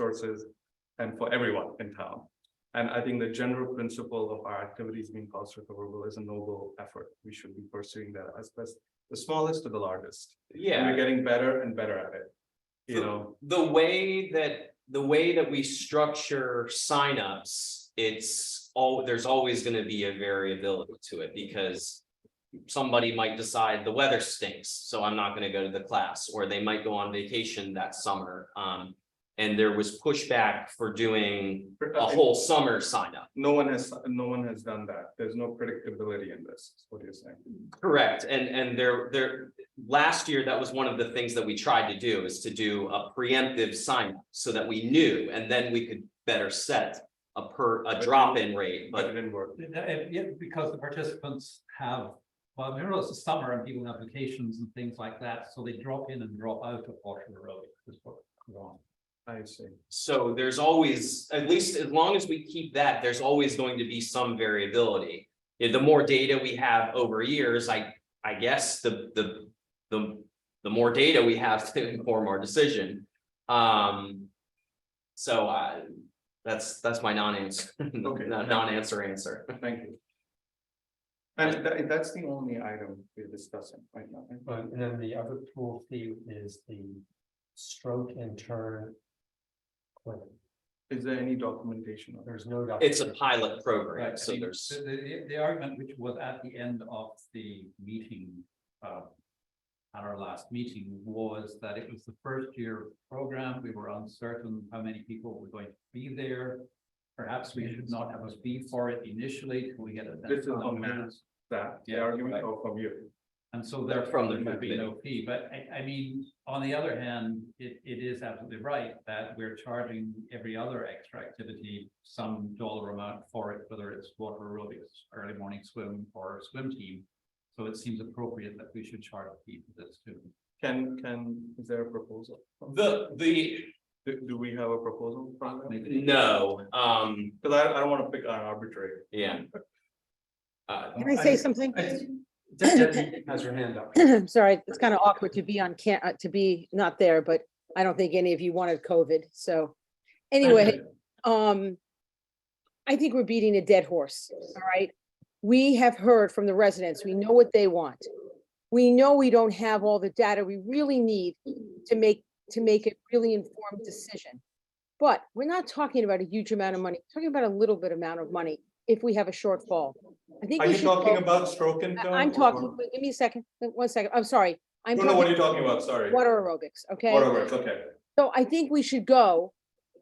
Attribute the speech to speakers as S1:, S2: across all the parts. S1: resources and for everyone in town. And I think the general principle of our activities being cost recoverable is a noble effort. We should be pursuing that as best, the smallest to the largest. And we're
S2: Yeah,
S1: getting better and better at it. You
S2: So-
S1: know,
S2: the way that, the way that we structure signups, it's all, there's always gonna be a variability to it because. Somebody might decide the weather stinks, so I'm not gonna go to the class, or they might go on vacation that summer. Um, and there was pushback for doing a whole summer signup.
S1: uh, no one has, no one has done that. There's no predictability in this, is what you're saying.
S2: Correct, and and there there, last year, that was one of the things that we tried to do is to do a preemptive sign up so that we knew and then we could better set a per, a drop in rate,
S1: But it
S2: but
S1: didn't work.
S3: Uh, Yeah, yeah, because the participants have, well, I mean, it's the summer and people have vacations and things like that, so they drop in and drop out of Washington Road. is what we're on.
S1: I see.
S2: so there's always, at least as long as we keep that, there's always going to be some variability. Yeah, The more data we have over years, I I guess the the the the more data we have to inform our decision. Um, so I, that's that's my non-answer,
S1: Okay.
S2: non- non-answer answer.
S1: Thank you. And that, that's the only item we're discussing right now. right?
S4: Right, and then the other pool fee is the stroke and turn. clinic.
S1: Is there any documentation of it?
S4: There's no.
S2: It's a
S4: documentation.
S2: pilot program,
S3: Right,
S2: so
S3: I mean,
S2: there's,
S3: The, the, the argument which was at the end of the meeting, uh, at our last meeting was that it was the first year program, we were uncertain how many people were going to be there. Perhaps we should not have a fee for it initially till we get a.
S1: This is on
S3: mass.
S1: that, the
S3: Yeah,
S1: argument
S3: right.
S1: or from you?
S3: And so
S2: They're
S3: therefore
S2: from the
S3: there would be
S2: movement.
S3: no fee, but I, I mean, on the other hand, it, it is absolutely right that we're charging every other extra activity. Some dollar amount for it, whether it's water aerobics, early morning swim or swim team. So it seems appropriate that we should charge a fee for this too.
S1: Can, can, is there a proposal?
S2: the, the,
S1: Do, do we have a proposal from them?
S3: Maybe.
S2: no, um,
S1: Because I, I don't want to pick an arbitrary.
S2: yeah. Uh,
S5: Can I say something?
S4: Deb- Debbie Has her hand up.
S5: I'm sorry, it's kind of awkward to be on can, uh, to be not there, but I don't think any of you wanted COVID, so. Anyway, um, I think we're beating a dead horse, all right? We have heard from the residents. We know what they want. We know we don't have all the data we really need to make, to make a really informed decision. But we're not talking about a huge amount of money, We're talking about a little bit amount of money if we have a shortfall. I think
S1: Are
S5: we
S1: you
S5: should
S1: talking
S5: focus-
S1: about stroke and?
S5: I-
S1: turn
S5: I'm
S1: or-
S5: talking, wait, give me a second, wait, one second, I'm sorry. I'm
S1: No, no, what are you
S5: talking
S1: talking about? Sorry.
S5: water aerobics, okay?
S1: Water works, okay.
S5: So I think we should go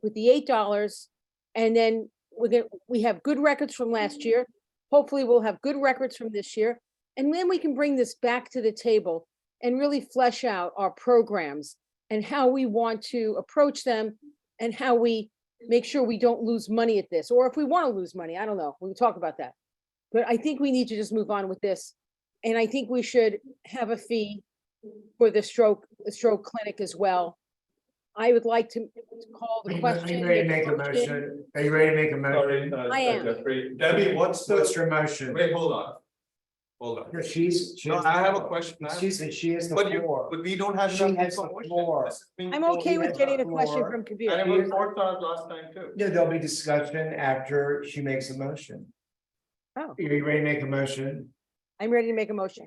S5: with the eight dollars and then we're gonna, we have good records from last year. Hopefully, we'll have good records from this year. And then we can bring this back to the table and really flesh out our programs and how we want to approach them and how we make sure we don't lose money at this, or if we want to lose money, I don't know. We can talk about that. But I think we need to just move on with this. And I think we should have a fee for the stroke, the stroke clinic as well. I would like to call
S6: Are
S5: the
S6: you
S5: question.
S6: ready to make a motion? Are you ready to make a motion?
S1: Sorry, uh,
S5: I am.
S1: Jeffrey. Debbie, what's
S6: What's
S1: the,
S6: your motion?
S1: wait, hold on. Hold on.
S6: No, She's. she
S1: No,
S6: has
S1: I
S6: the
S1: have a
S6: floor.
S1: question. I have-
S6: She's, the- she is the
S1: But you,
S6: floor.
S1: but we don't have.
S6: She
S1: enough
S6: has the
S1: information.
S6: floor.
S1: This is being
S5: I'm
S1: told
S5: okay
S6: you
S5: with
S6: have
S5: getting a
S6: the
S5: question
S6: floor.
S5: from
S1: And
S5: Kabir.
S1: it was four stars last time too.
S6: No, there'll be discussion after she makes a motion.
S5: Oh.
S6: Are you ready to make a motion?
S5: I'm ready to make a motion.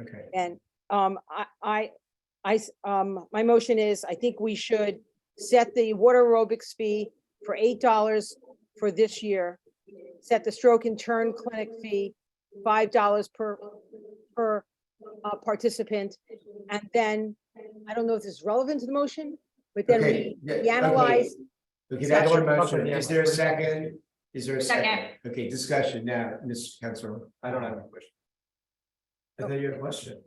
S6: Okay.
S5: And um, I, I, I s- um, my motion is, I think we should set the water aerobics fee for eight dollars for this year. Set the stroke and turn clinic fee, five dollars per, per uh, participant. And then, I don't know if this is relevant to the motion, but then
S6: Okay.
S5: we
S6: yeah,
S5: we
S6: okay.
S5: analyze,
S6: Okay, that's your
S5: Discussion.
S6: motion. Is there a second? Is there a second?
S7: Second.
S6: Okay, discussion now, Mr. Council.
S1: I don't have a question.
S6: I
S5: Oh.
S6: thought you had a question.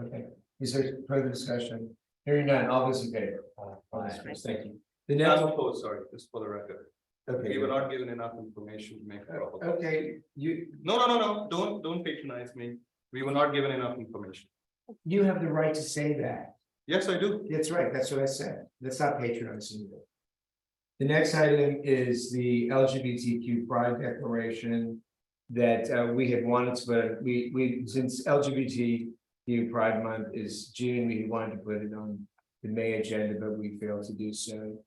S6: Okay, is there further discussion? Hearing none, all those in favor? All those opposed, Thank you. The
S1: I'm
S6: next,
S1: opposed, sorry, just for the record.
S6: okay.
S1: We were not given enough information to make a proposal.
S6: Okay, you,
S1: No, no, no, no, don't, don't patronize me. We were not given enough information.
S6: you have the right to say that.
S1: Yes, I do.
S6: That's right, that's what I said. That's not patronizing you. The next item is the LGBTQ pride declaration that uh, we had wanted to, but we, we, since LGBTQ Pride Month is June, we wanted to put it on the May agenda, but we failed to do so.